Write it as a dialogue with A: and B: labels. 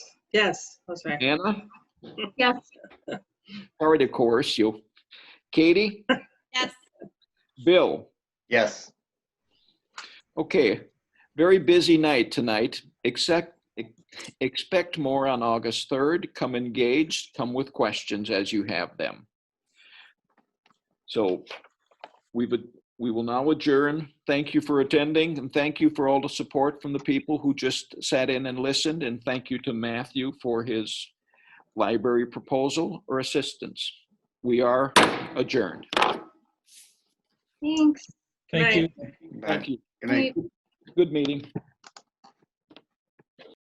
A: Yes, that's right.
B: Anna,
C: Yes.
B: sorry to coerce you. Katie,
C: Yes.
B: Bill,
D: Yes.
B: okay. Very busy night tonight. Except, expect more on August 3rd. Come engaged, come with questions as you have them. So we would, we will now adjourn. Thank you for attending and thank you for all the support from the people who just sat in and listened. And thank you to Matthew for his library proposal or assistance. We are adjourned.
A: Thanks.
E: Thank you.
D: Bye.
B: Thank you.
D: Good night.
B: Good meeting.